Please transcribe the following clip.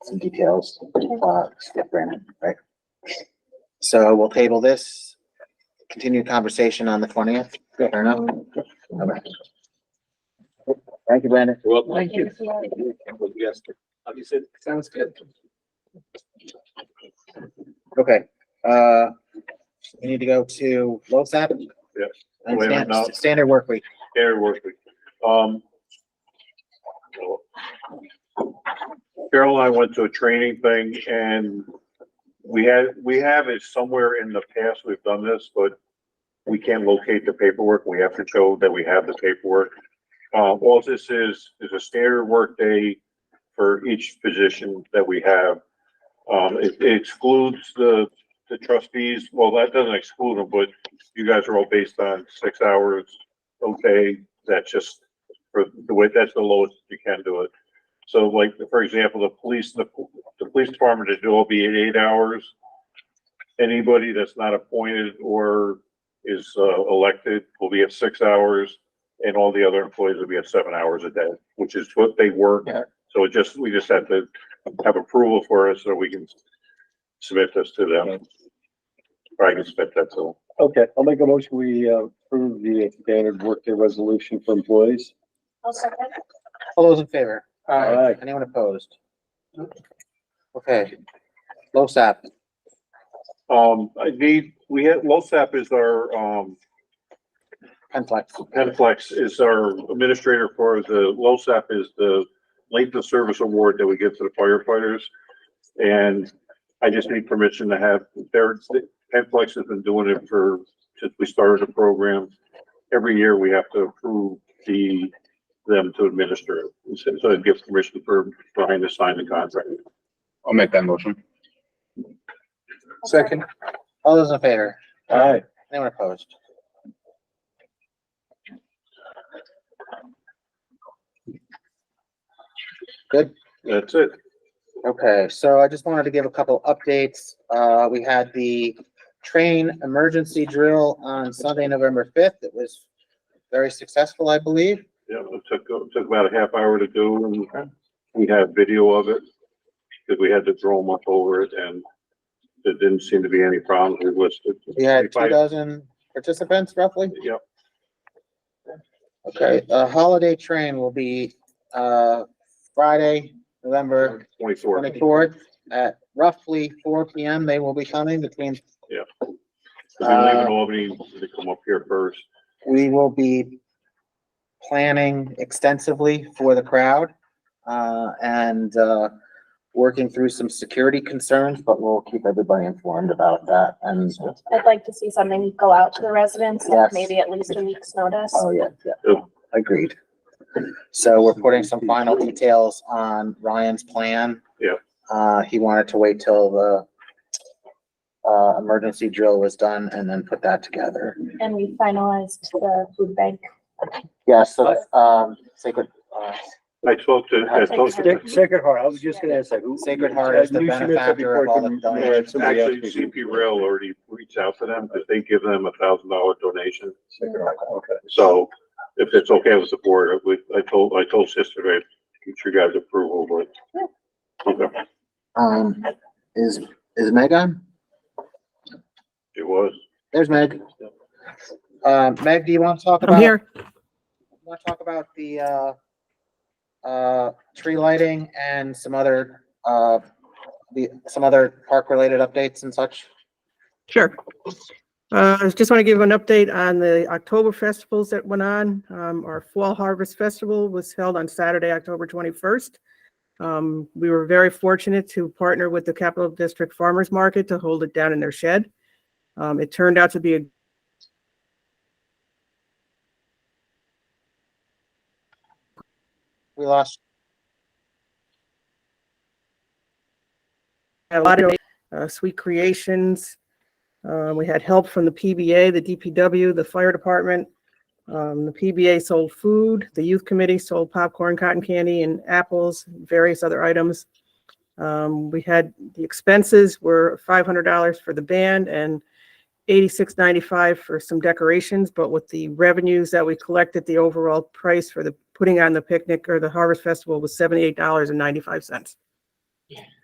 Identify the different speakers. Speaker 1: some details, uh, step Brandon, right? So we'll table this, continue conversation on the twentieth, fair enough? Okay. Thank you, Brandon.
Speaker 2: Well,
Speaker 3: Thank you.
Speaker 2: Obviously, sounds good.
Speaker 1: Okay, uh, we need to go to LoSAP.
Speaker 4: Yes.
Speaker 1: And
Speaker 4: Wait a
Speaker 1: stan-
Speaker 4: minute, no.
Speaker 1: standard work week.
Speaker 4: Air work week. Um. Carol and I went to a training thing and we had, we have it somewhere in the past, we've done this, but we can't locate the paperwork. We have to show that we have the paperwork. Uh, all this is, is a standard work day for each position that we have. Um, it it excludes the, the trustees. Well, that doesn't exclude them, but you guys are all based on six hours okay, that's just for the way, that's the lowest you can do it. So like, for example, the police, the, the police department is all be at eight hours. Anybody that's not appointed or is uh, elected will be at six hours. And all the other employees will be at seven hours a day, which is what they work.
Speaker 1: Yeah.
Speaker 4: So it just, we just have to have approval for it so we can submit this to them. Or I can submit that to
Speaker 5: Okay, I'll make a motion, we uh, approve the standard workday resolution for employees.
Speaker 3: I'll second.
Speaker 1: All those in favor?
Speaker 5: Aye.
Speaker 1: Anyone opposed? Okay. LoSAP,
Speaker 4: them. Um, I need, we had, LoSAP is our, um,
Speaker 1: Penflex.
Speaker 4: Penflex is our administrator for the, LoSAP is the length of service award that we give to the firefighters. And I just need permission to have, their Penflex has been doing it for, since we started the program. Every year we have to approve the, them to administer it. So so it gives permission for Brian to sign the contract.
Speaker 6: I'll make that motion.
Speaker 2: Second.
Speaker 1: All those in favor?
Speaker 5: Aye.
Speaker 1: Anyone opposed?
Speaker 4: That's it.
Speaker 1: Okay, so I just wanted to give a couple updates. Uh, we had the train emergency drill on Sunday, November fifth. It was very successful, I believe.
Speaker 4: Yeah, it took, it took about a half hour to do and we had video of it. Cause we had to drone up over it and there didn't seem to be any problems we listed.
Speaker 1: We had two
Speaker 4: Five-
Speaker 1: dozen participants roughly.
Speaker 4: Yep,
Speaker 1: Okay, the holiday train will be, uh, Friday, November
Speaker 4: twenty-four.
Speaker 1: twenty-fourth at roughly four P M. They will be coming between,
Speaker 4: Cause they live in Albany, they come up here first.
Speaker 1: we will be planning extensively for the crowd, uh, and, uh, working through some security concerns, but we'll keep everybody informed about that. And, uh,
Speaker 3: I'd like to see something go out to the residents, like
Speaker 1: Yes.
Speaker 3: maybe at least a week's notice.
Speaker 1: oh, yeah, yeah, agreed. So we're putting some final details on Ryan's plan.
Speaker 4: Yeah.
Speaker 1: Uh, he wanted to wait till the, uh, emergency drill was done and then put that together.
Speaker 3: And we finalized the food bank.
Speaker 1: Yeah, so, um, Sacred, uh,
Speaker 4: I spoke to, I spoke to,
Speaker 5: Sa- Sacred Heart, I was just gonna ask that. who-
Speaker 1: Sacred Heart is the
Speaker 5: I knew she meant that
Speaker 1: benefactor of
Speaker 5: before
Speaker 1: all
Speaker 5: I
Speaker 1: the
Speaker 5: could-
Speaker 1: donations.
Speaker 5: Alright, somebody else
Speaker 4: actually
Speaker 5: can-
Speaker 4: CP Rail already reached out to them, cause they give them a thousand dollar donation.
Speaker 5: Sacred Heart, okay.
Speaker 4: So if it's okay with the board, I- we, I told, I told sister, I, get your guys approval,
Speaker 3: Yeah.
Speaker 4: but. Okay,
Speaker 1: um, is, is Meg on?
Speaker 4: it was.
Speaker 1: There's Meg. Um, Meg, do you want to talk about?
Speaker 7: I'm here.
Speaker 1: Want to talk about the, uh, uh, tree lighting and some other, uh, the, some other park-related updates and such?
Speaker 7: Sure. Uh, I just want to give an update on the October festivals that went on. Um, our Fall Harvest Festival was held on Saturday, October 21st. Um, we were very fortunate to partner with the Capital District Farmers Market to hold it down in their shed. Um, it turned out to be a
Speaker 1: We lost,
Speaker 7: had a lot of uh, sweet creations. Um, we had help from the PBA, the DPW, the fire department. Um, the PBA sold food, the youth committee sold popcorn, cotton candy, and apples, various other items. Um, we had the expenses were five hundred dollars for the band and eighty-six ninety-five for some decorations. But with the revenues that we collected, the overall price for the putting on the picnic or the harvest festival was seventy-eight dollars and ninety-five cents.